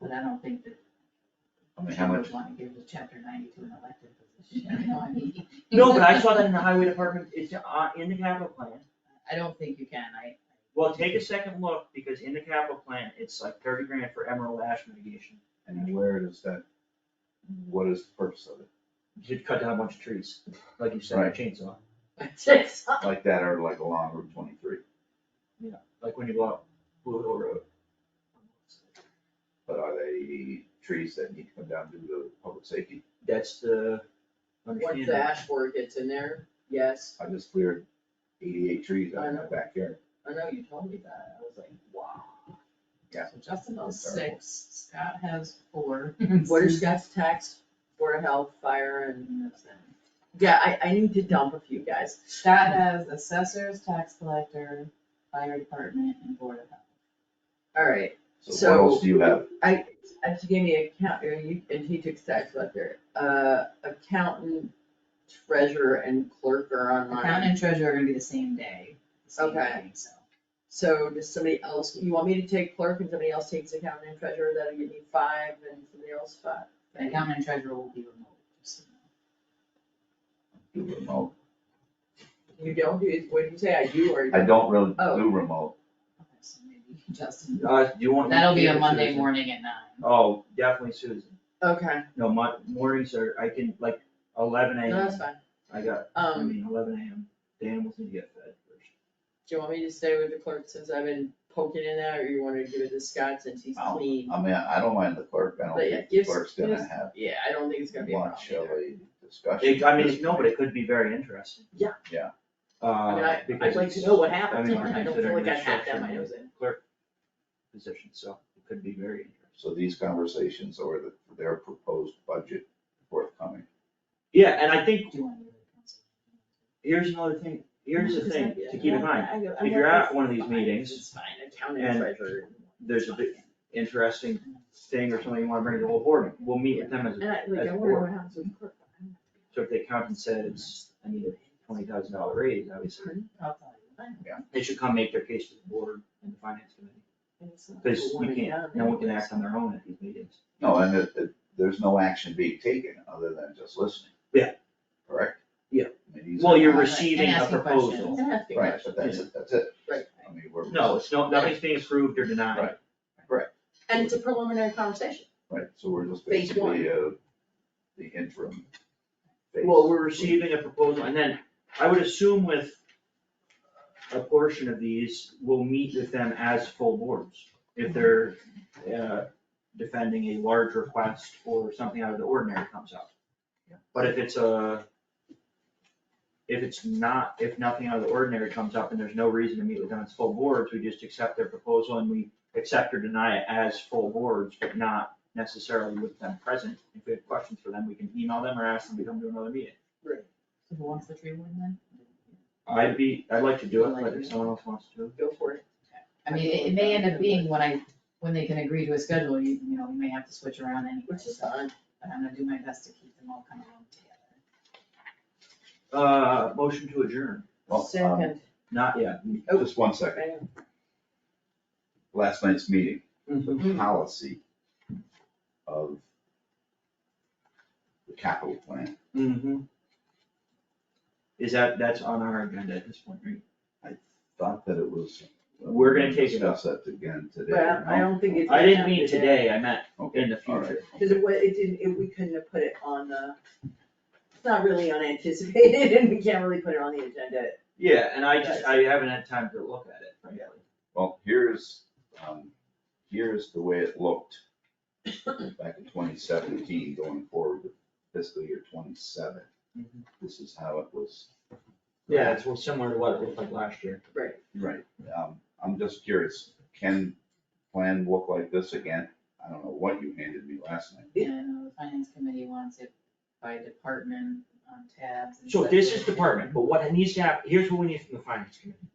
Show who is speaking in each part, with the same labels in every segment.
Speaker 1: But I don't think that.
Speaker 2: I mean, how much-
Speaker 1: Would wanna give the chapter ninety to an elected position, you know, I mean.
Speaker 3: No, but I saw that in the highway department, it's uh, in the capital plan.
Speaker 1: I don't think you can, I,
Speaker 3: Well, take a second look, because in the capital plan, it's like thirty grand for emerald ash mitigation,
Speaker 2: And where does that, what is the purpose of it?
Speaker 3: to cut down a bunch of trees, like you said, with a chainsaw,
Speaker 1: it's,
Speaker 2: Like that or like along Route twenty-three?
Speaker 3: like when you go up Blue Hill Road.
Speaker 2: But are they trees that need to come down due to public safety?
Speaker 3: That's the
Speaker 4: Once
Speaker 3: understanding.
Speaker 4: the ash board gets in there, yes,
Speaker 2: I just cleared eighty-eight trees out in my backyard.
Speaker 4: I know you told me that, I was like, wow.
Speaker 2: Yeah.
Speaker 1: so Justin has
Speaker 2: Terrible.
Speaker 1: six, Scott has four.
Speaker 4: What is Scott's tax, Board of Health, Fire and,
Speaker 1: Scott
Speaker 4: yeah, I, I need to dump a few guys.
Speaker 1: has assessors, tax collector, fire department, and board of health.
Speaker 4: Alright,
Speaker 2: So what else do you have?
Speaker 4: I, I she gave me account, or you, and he took tax collector, uh, accountant, treasurer and clerk are on
Speaker 1: Accountant
Speaker 4: mine.
Speaker 1: and treasurer are gonna be the same day, the same
Speaker 4: Okay.
Speaker 1: meeting, so.
Speaker 4: So does somebody else, you want me to take clerk and somebody else takes accountant and treasurer, that'll give me five and somebody else five?
Speaker 1: The accountant and treasurer will be remote, just so you know.
Speaker 2: Do remote.
Speaker 4: You don't do, what do you say, I do or? you
Speaker 2: I don't really
Speaker 4: Oh.
Speaker 2: do remote.
Speaker 1: Okay, so maybe Justin,
Speaker 3: Uh, do you want? me to
Speaker 1: that'll be
Speaker 3: keep
Speaker 1: a
Speaker 3: it,
Speaker 1: Monday
Speaker 3: Susan?
Speaker 1: morning at nine.
Speaker 3: Oh, definitely Susan,
Speaker 4: Okay,
Speaker 3: no, my mornings are, I can, like, eleven
Speaker 4: no,
Speaker 3: AM,
Speaker 4: that's fine.
Speaker 3: I got, I
Speaker 4: Um,
Speaker 3: mean, eleven AM, the animals need to get fed first.
Speaker 4: do you want me to stay with the clerk since I've been poking in that, or you wanna give it to Scott since he's
Speaker 2: I'll-
Speaker 4: clean?
Speaker 2: I mean, I don't mind the clerk. I don't
Speaker 4: But yeah,
Speaker 2: think the
Speaker 4: gives-
Speaker 2: clerk's gonna
Speaker 4: gives-
Speaker 2: have
Speaker 4: Yeah, I don't think it's gonna be a problem
Speaker 2: much of
Speaker 4: either.
Speaker 2: a discussion.
Speaker 3: It, I mean, it's- no, but it could be very interesting.
Speaker 4: Yeah.
Speaker 2: Yeah.
Speaker 4: I mean,
Speaker 3: Uh,
Speaker 4: I,
Speaker 3: because
Speaker 4: I'd like to
Speaker 3: it's-
Speaker 4: know what
Speaker 3: I
Speaker 4: happened,
Speaker 3: mean,
Speaker 4: I don't feel
Speaker 3: considering
Speaker 4: like
Speaker 3: the
Speaker 4: I have that
Speaker 3: structure
Speaker 4: in my
Speaker 3: of
Speaker 4: nose
Speaker 3: the
Speaker 4: in.
Speaker 3: Clerk position, so it could be very interesting.
Speaker 2: So these conversations or the, their proposed budget forthcoming.
Speaker 3: Yeah, and I think,
Speaker 1: Do you want to go to council?
Speaker 3: here's another thing, here's the thing to keep in mind,
Speaker 4: I go- I'm
Speaker 3: if you're
Speaker 4: like,
Speaker 3: at one of these
Speaker 4: it's fine,
Speaker 3: meetings
Speaker 4: It's fine, accounting
Speaker 3: and-
Speaker 4: treasurer.
Speaker 3: there's a big interesting thing or something you wanna bring to the whole board, we'll meet with them as,
Speaker 4: And I, like,
Speaker 3: as
Speaker 4: I
Speaker 3: a
Speaker 4: wonder
Speaker 3: board.
Speaker 4: what happens with clerk. I'm not-
Speaker 3: So if the accountant said it's, I need a twenty thousand dollar raise, obviously,
Speaker 4: Pardon?
Speaker 1: I'll tell you.
Speaker 3: they should come make their case to the board and the finance committee.
Speaker 4: And it's not
Speaker 3: Cause
Speaker 4: a one
Speaker 3: you
Speaker 4: and
Speaker 3: can't,
Speaker 4: done,
Speaker 3: no one can
Speaker 4: it's-
Speaker 3: act on their own at these meetings.
Speaker 2: No, and that, that there's no action being taken other than just listening.
Speaker 3: Yeah.
Speaker 2: Correct?
Speaker 3: Yeah.
Speaker 2: I mean, these
Speaker 3: Well,
Speaker 2: are
Speaker 3: you're
Speaker 2: not-
Speaker 1: Right, and
Speaker 3: receiving a
Speaker 1: asking
Speaker 3: proposal.
Speaker 1: questions.
Speaker 4: And asking
Speaker 2: Right,
Speaker 4: questions,
Speaker 2: but that's it, that's it.
Speaker 4: right,
Speaker 2: I mean, we're.
Speaker 3: No, it's no, nothing's being approved or denied.
Speaker 2: Right. Correct,
Speaker 4: and it's a preliminary conversation.
Speaker 2: right, so we're just
Speaker 4: Phase
Speaker 2: basically, uh, the interim. phase.
Speaker 3: Well, we're receiving a proposal, and then I would assume with a portion of these, we'll meet with them as full boards. If they're, uh, defending a large request or something out of the ordinary comes up. But if it's a, if it's not, if nothing out of the ordinary comes up and there's no reason to meet with them as full boards, we just accept their proposal and we accept or deny it as full boards, but not necessarily with them present. If we have questions for them, we can email them or ask them to come to another meeting.
Speaker 1: So who wants the tree warden then?
Speaker 3: I'd be, I'd like to do it, but if someone else wants to.
Speaker 4: Go for it.
Speaker 1: I mean, it, it may end up being when I, when they can agree to a schedule, you, you know, we may have to switch around anyway.
Speaker 4: Which is
Speaker 1: so-
Speaker 4: fine.
Speaker 1: But I'm gonna do my best to keep them all kind of together.
Speaker 3: Uh, motion to adjourn,
Speaker 2: Well, um,
Speaker 4: Second,
Speaker 3: not yet.
Speaker 2: Just one second,
Speaker 4: bam.
Speaker 2: last night's meeting,
Speaker 3: Mm-hmm.
Speaker 2: the policy of the capital plan,
Speaker 3: Mm-hmm. Is that, that's on our agenda at this point, right?
Speaker 2: thought that it was. uh,
Speaker 3: We're gonna take it up.
Speaker 2: Discuss that again today.
Speaker 4: Well, I
Speaker 2: no?
Speaker 4: don't think it's.
Speaker 3: I didn't mean today, I meant
Speaker 2: Okay,
Speaker 3: in the
Speaker 2: all right,
Speaker 3: future.
Speaker 4: Cause it wa, it didn't, it, we couldn't have put it on the, it's not really unanticipated and we can't really put it on the agenda.
Speaker 3: Yeah, and I just, I haven't had time to look at it, frankly.
Speaker 2: Well, here's, um, here's the way it looked back in twenty seventeen, going forward to fiscal year twenty-seven.
Speaker 3: Mhm.
Speaker 2: This is how it was.
Speaker 3: Yeah, it's well, similar to what it looked like last year.
Speaker 4: Right.
Speaker 2: Right. Um, I'm just curious, can plan look like this again? I don't know what you handed me last night.
Speaker 1: And uh, the finance committee wants it by department on tabs and
Speaker 3: So
Speaker 1: such.
Speaker 3: this is department, but what needs to happen, here's what we need from the finance committee.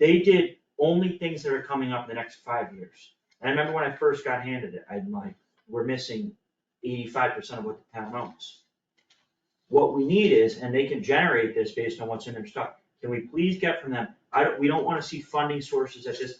Speaker 3: They did only things that are coming up in the next five years. And I remember when I first got handed it, I'm like, we're missing eighty-five percent of what the town owns. What we need is, and they can generate this based on what's in their stock, can we please get from them, I don't, we don't wanna see funding sources at this